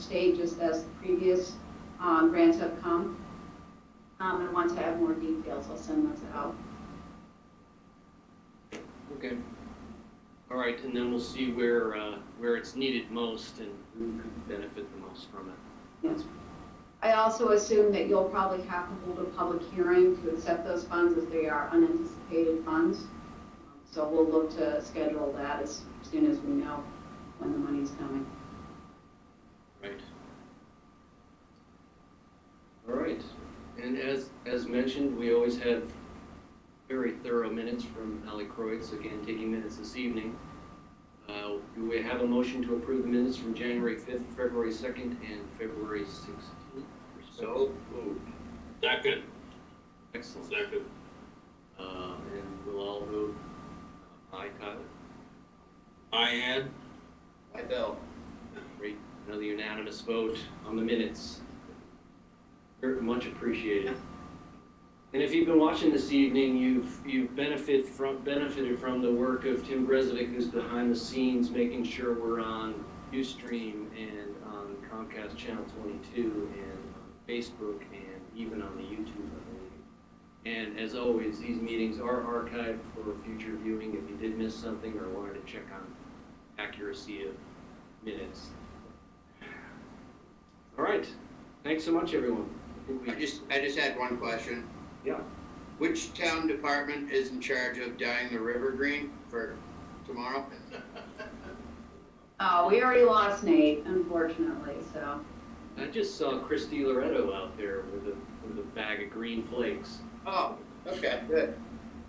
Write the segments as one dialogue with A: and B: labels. A: state, just as the previous uh, grants have come. Um, And once I have more details, I'll send those out.
B: Okay. All right, and then we'll see where, uh, where it's needed most and who could benefit the most from it.
A: Yes. I also assume that you'll probably have to hold a public hearing to accept those funds as they are unanticipated funds. So we'll look to schedule that as soon as we know when the money's coming.
B: Right. All right, and as, as mentioned, we always have very thorough minutes from Ally Croix, again, taking minutes this evening. Uh, Do we have a motion to approve the minutes from January 5th, February 2nd, and February 16th?
C: So moved. Second,
B: Excellent.
C: second.
B: Uh, And we'll all vote uh, aye, Tyler?
C: I Ann?
B: Aye, Bill. Great, another unanimous vote on the minutes. Very much appreciated. And if you've been watching this evening, you've, you've benefited from, benefited from the work of Tim Bresnick, who's behind the scenes, making sure we're on Ustream and on Comcast Channel 22 and on Facebook and even on the YouTube, I believe. And as always, these meetings are archived for future viewing. If you did miss something or wanted to check on accuracy of minutes. All right, thanks so much, everyone. I think
D: I
B: we-
D: just, I just had one question.
B: Yeah.
D: Which town department is in charge of dyeing the river green for tomorrow?
A: Oh, we already lost Nate, unfortunately, so.
B: I just saw Christy Loretto out there with a with a bag of green flakes.
D: Oh, okay, good.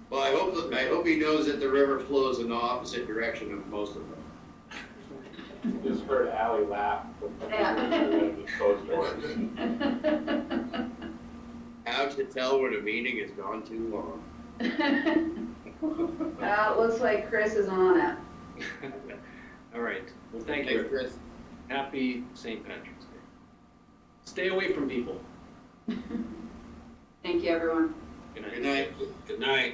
D: Well, I hope, that- I hope he knows that the river flows in the opposite direction of most of them.
E: Just heard Ally laugh.
A: Yeah.
E: Closed doors.
D: How to tell when a meeting has gone too long.
A: Well, it looks like Chris is on it.
B: All right, well, thank
D: Thanks,
B: you.
D: Chris.
B: Happy St. Patrick's Day. Stay away from people.
A: Thank you, everyone.
B: Good night.
D: Good night.
C: Good night.